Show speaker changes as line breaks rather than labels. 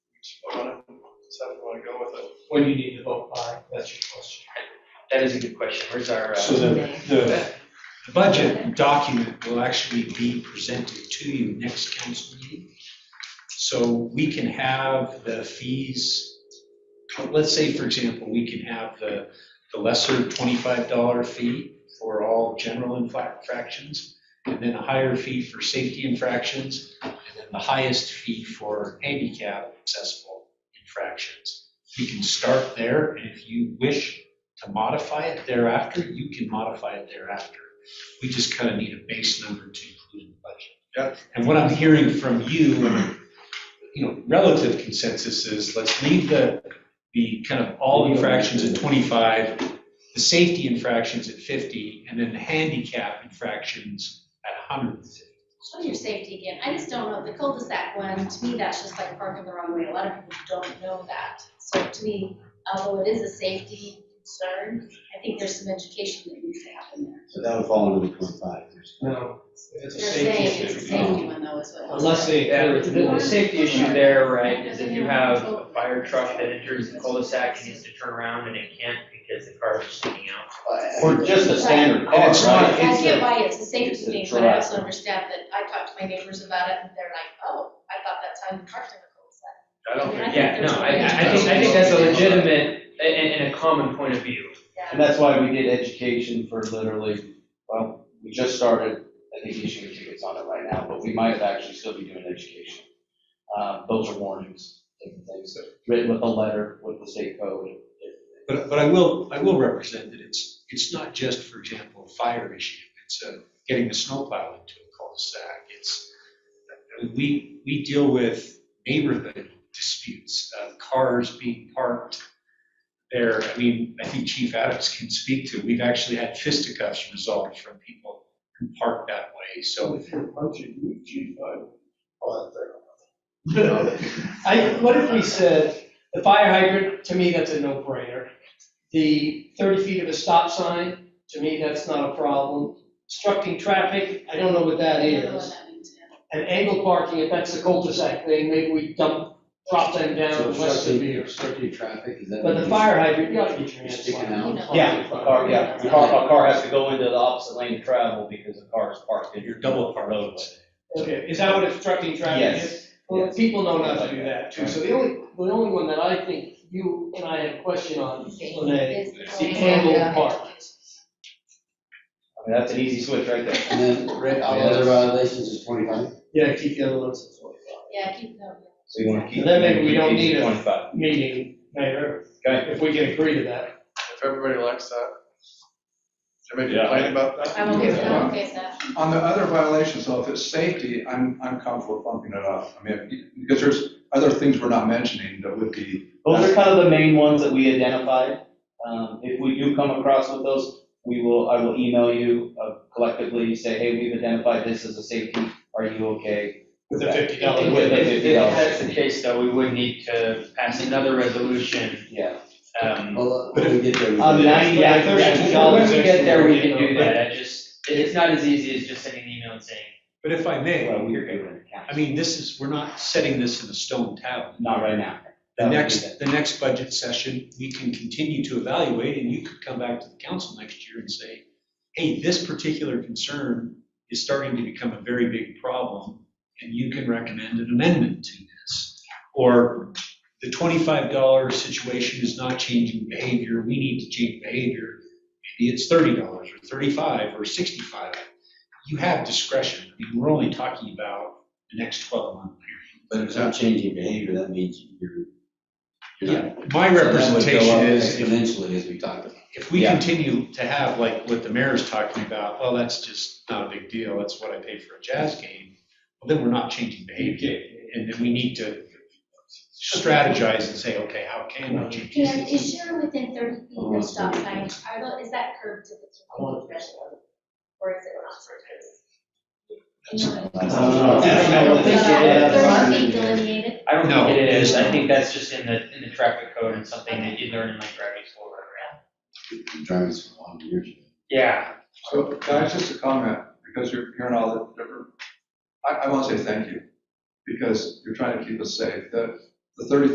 So if you wanna go with it.
When you need to vote by, that's your question.
That is a good question. Where's our,
So
uh,
the, the the budget document will actually be presented to you next council meeting. So we can have the fees, let's say, for example, we can have the, the lesser twenty-five dollar fee for all general infractions, and then a higher fee for safety infractions, and then the highest fee for handicap accessible infractions. We can start there, and if you wish to modify it thereafter, you can modify it thereafter. We just kind of need a base number to include in the budget. And what I'm hearing from you, you know, relative consensus is, let's leave the, the kind of all infractions at 25, the safety infractions at 50, and then the handicap infractions at 150.
Show your safety again. I just don't know, the cul-de-sac one, to me, that's just like parking the wrong way. A lot of people don't know that. So to me, although it is a safety concern, I think there's some education that needs to happen there.
So that would fall under the twenty-five.
No, it's a
They're
safety
saying it's a
issue.
safety one though, is what. it was.
Unless they.
yeah,
encourage
uh, the,
more.
the safety issue there, right, is if you have a fire truck that enters the cul-de-sac and needs to turn around and it can't because the car is sticking out.
Or just a standard
And it's
cost,
not-
right?
I get why it's a
it's
safety
a
thing, but I
drive.
also understand that I talked to my neighbors about it and they're like, oh, I thought that's how you parked in the cul-de-sac.
I don't think-
Yeah, no, I, I think, I think that's a legitimate and, and a common point of view.
Yeah.
And that's why we did education for literally, well, we just started, I think, issuing tickets on it right now, but we might actually still be doing education. Uh, those are warnings, different things, written with a letter, with the state code.
But, but I will, I will represent that it's, it's not just, for example, a fire issue. It's uh, getting the snowplow into a cul-de-sac. It's, we, we deal with neighborhood disputes, uh, cars being parked there. I mean, I think Chief Adams can speak to, we've actually had fisticuffs resolved from people who park that way. So
If you're punching, you chief, I, I'll have
I, what if we said, the fire hydrant, to me, that's a no-brainer. The thirty feet of a stop sign, to me, that's not a problem. Obstructing traffic, I don't know what that
I don't know what
is.
that means, yeah.
And angle parking, if that's the cul-de-sac thing, maybe we dump, drop them down less severe.
traffic, is that?
But the fire hydrant, you gotta get your
You're
hands
sticking
on.
out.
You know.
Yeah, a car, yeah, a car, a car has to go into the opposite lane to travel because the car is parked in.
you're double parked.
roadway.
Okay, is that what obstructing traffic is?
Yes.
Well,
yes.
people know not to do that too, so the only, the only one that I think you and I had a question on, Lene,
Is-
is the angle parking.
I mean, that's an easy switch right there.
And then Rick, all other violations is twenty-five?
Yeah, keep the other ones at forty-five.
Yeah, keep going.
So you wanna keep.
Then maybe we don't
keep
need it.
Twenty-five,
Meeting, Mayor,
okay?
if we can agree to that.
If everybody likes that. Anybody complain about that?
I'm okay with that, I'm okay with that.
On the other violations, though, if it's safety, I'm, I'm comfortable bumping it up. I mean, because there's other things we're not mentioning that would be,
Those are kind of the main ones that we identified. Um, if we do come across with those, we will, I will email you uh, collectively, say, hey, we've identified this as a safety, are you okay?
With the fifty
Yeah,
dollar.
with the
If,
$50.
if that's the case though, we would need to pass another resolution,
Yeah.
um,
Well, when we get there. we
On
can-
ninety, yeah,
But if there's
yeah,
two
John, when we
dollars
get there, we can
extra,
do that.
that, I just, it- it's not as easy as just sending an email and saying,
But if I may,
Well, we're good with the
I
council.
mean, this is, we're not setting this in a stone tower.
Not right now.
The
That would be
next,
that.
the next budget session, we can continue to evaluate, and you could come back to the council next year and say, hey, this particular concern is starting to become a very big problem, and you can recommend an amendment to this. Or the twenty-five dollar situation is not changing behavior, we need to change behavior. Maybe it's thirty dollars, or thirty-five, or sixty-five. You have discretion, I mean, we're only talking about the next twelve-month
But if it's not changing behavior, that means you're. you're
period.
not-
My
So that would go
representation
up
is, if
Exponentially, as we talked about.
if we
Yeah.
continue to have like what the mayor's talking about, well, that's just not a big deal, that's what I pay for a jazz game, well, then we're not changing behavior. And then we need to strategize and say, okay, how can we change?
Karen, is sure within thirty feet of the stop sign, are tho- is that curved to the fifteen feet threshold? Or is it not for curves?
I don't think it is.
Thirty feet delineated?
I don't
No,
think it
it
is,
is
I
not.
think that's just in the, in the traffic code and something that you learn in like driving school or whatever.
Driving this for a long years.
Yeah,
so that's just a comment, because you're hearing all the different, I, I want to say thank you, because you're trying to keep us safe. The, the thirty